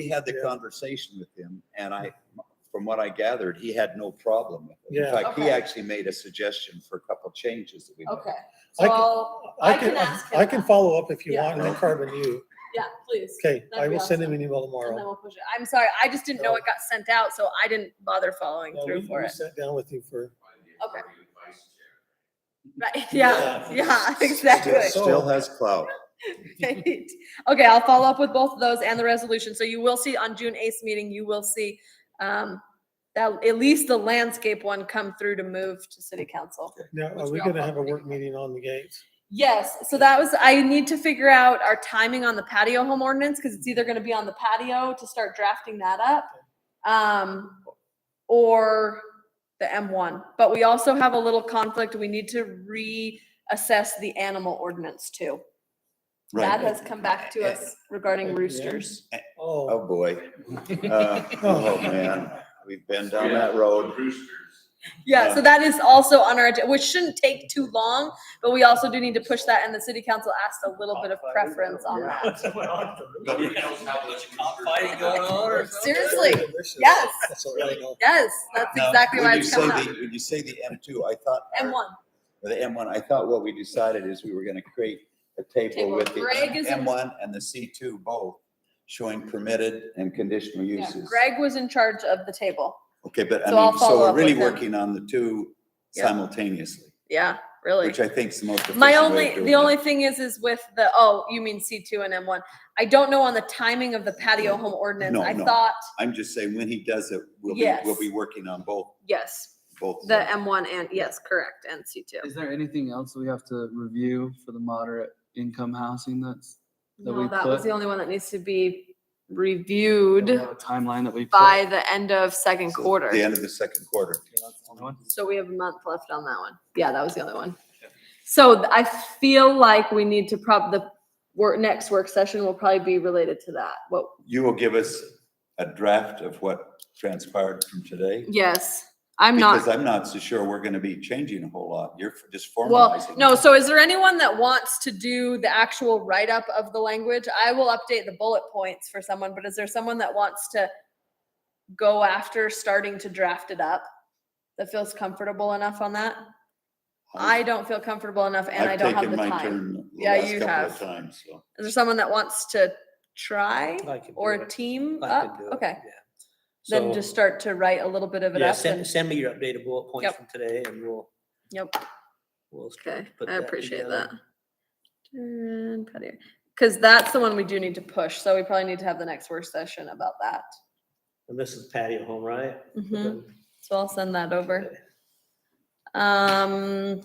We had the Yeah. conversation with him and I, from what I gathered, he had no problem with it. Yeah. In fact, he Okay. actually made a suggestion for a couple changes that we made. Okay, I so can- I'll- I I can, can ask him. I can that. follow up if you Yeah. want, and then Carmen, you. Yeah, please. Okay, I That'd be will send him awesome. an email And then tomorrow. we'll push it. I'm sorry, I just didn't know No. it got sent out, so I didn't bother following No, through we- for we it. Sat down with you for, Okay. Right, Yeah. yeah, yeah, Still- exactly. Still has clout. Right. Okay, I'll follow up with both of those and the resolution. So you will see on June eighth meeting, you will see um that at least the landscape one come through to move to city council. now, Which are we we all gonna have a probably work have. meeting on the gates? Yes, so that was, I need to figure out our timing on the patio home ordinance, because it's either gonna be on the patio to start drafting that up. Um, or the M one, but we also have a little conflict, we need to reassess the animal ordinance too. That has come back to us regarding Again? roosters. Oh, Oh, boy. Uh, Oh, man, we've been down that road. Yeah, Yeah. so that is also on our, agenda, which shouldn't take too long, but we also do need to push that, and the city council asked a little bit of preference on that. Nobody knows how much cockfighting going on or something? Seriously, Delicious. yes. That's all I know. yes, that's Now, exactly when why you it's say coming up. the- When you say the M two, I thought. M one. or The M one, I thought what we decided is we were gonna create a table Table. with the Greg is in- M one and the C two both showing permitted and conditional Yeah, uses. Greg was in charge of the table. Okay, but So I'll I mean, so follow we're up with really him. working on the two Yeah. simultaneously, Yeah, really. which I think is the most efficient My way of only, doing the it. only thing is, is with the, oh, you mean C two and M one. I don't know on the timing of the patio home ordinance. No, I no. thought, I'm just saying, when he does it, we'll be, Yes. we'll be working on both, yes, both. the M one and, yes, correct, and C two. Is there anything else we have to review for the moderate income housing that's? that No, we that was put- the only one that needs to be that we reviewed have a Timeline that we. put? by the end of second So, quarter. The end of the second quarter. Okay, that's the only one. So we have a month left on that one. Yeah, that was the other one. So th- I feel like we need to prob, the work, next work session will probably be related to that. What, You will give us a draft of what transpired from today? yes, I'm Because not, I'm not so sure we're gonna be changing a whole lot. You're f- just well, formalizing. no, so is there anyone that wants to do the actual write-up of the language? I will update the bullet points for someone, but is there someone that wants to go after starting to draft it up? That feels comfortable enough on that? I I've- don't feel comfortable enough and I Um, I've don't have taken the my time. turn the Yeah, last you couple of have. times, so. Is there someone that wants to try I can do or it. team I up? can do it, Okay, yeah. then So, just start to write a little bit of it Yeah, up. and- send, send me your updated bullet points Yep. from today and we'll, Yep. we'll. Okay, put I that appreciate together. that. Turn patio, because that's the one we do need to push. So we probably need to have the next work session about that. And this is patio home, right? Mhm. So I'll send that over. Um,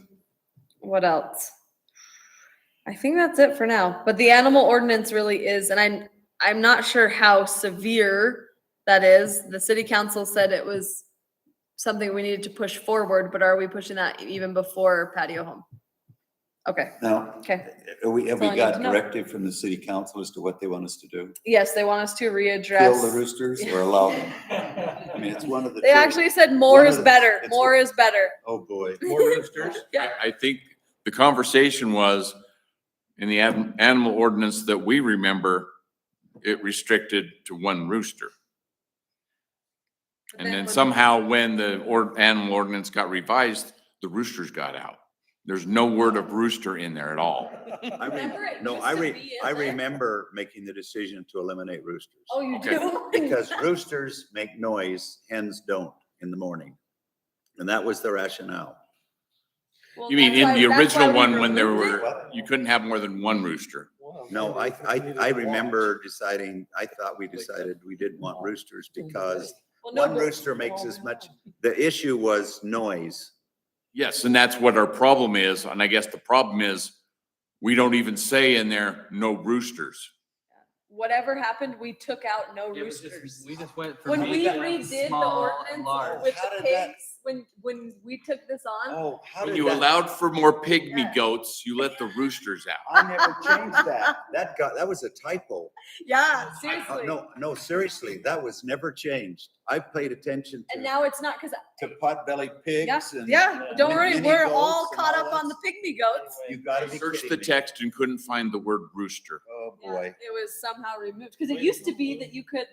what else? I think that's it for now, but the animal ordinance really is, and I'm, I'm not sure how severe that is. The city council said it was something we needed to push forward, but are we pushing that even before patio home? Okay, Now, okay. have we, have That's all I we need got to know. directive from the city council as to what they want us to do? Yes, they want us to Kill the readdress. roosters or allow them? I mean, it's one of the. They two. actually said more One is of the- better, it's- more is better. Oh, boy. More roosters? Yeah. I think the conversation was in the an- animal ordinance that we remember, it restricted to one rooster. And then when- somehow when the or, animal ordinance got revised, the roosters got out. There's no word of rooster in there at all. I re- Remember it No, used I to re, be in I there? remember making the decision to eliminate roosters. Oh, you Okay. do? Because roosters make noise, hens don't in the morning. And that was the rationale. Well, You mean that's why- in the that's why original we one, when there removed it. were, you couldn't have more than one rooster. No, I, I, I remember deciding, I thought we decided we didn't want roosters Oh, because Well, no, one but- rooster makes as much, the issue was noise. Yes, and that's what our problem is. And I guess the problem is, we don't even say in there, no roosters. Whatever happened, we took out no Yeah, but just- roosters. We just went from. When big we to redid the small ordinance and large. with How the did that- pigs, when, when we took this on, Oh, how When you allowed for more pygmy goats, you let the roosters out. I never changed that. That got, that was a typo. yeah, Uh, seriously. No, no, seriously, that was never changed. I paid attention And to, now it's not, cause, to pot-bellied pigs and. yeah, don't worry, Mini we're all goats and caught all up on the that pygmy goats. You gotta be Searched the kidding me. text and couldn't find the word rooster. Oh, Yeah, boy. It was somehow removed, cause it used to be that you could,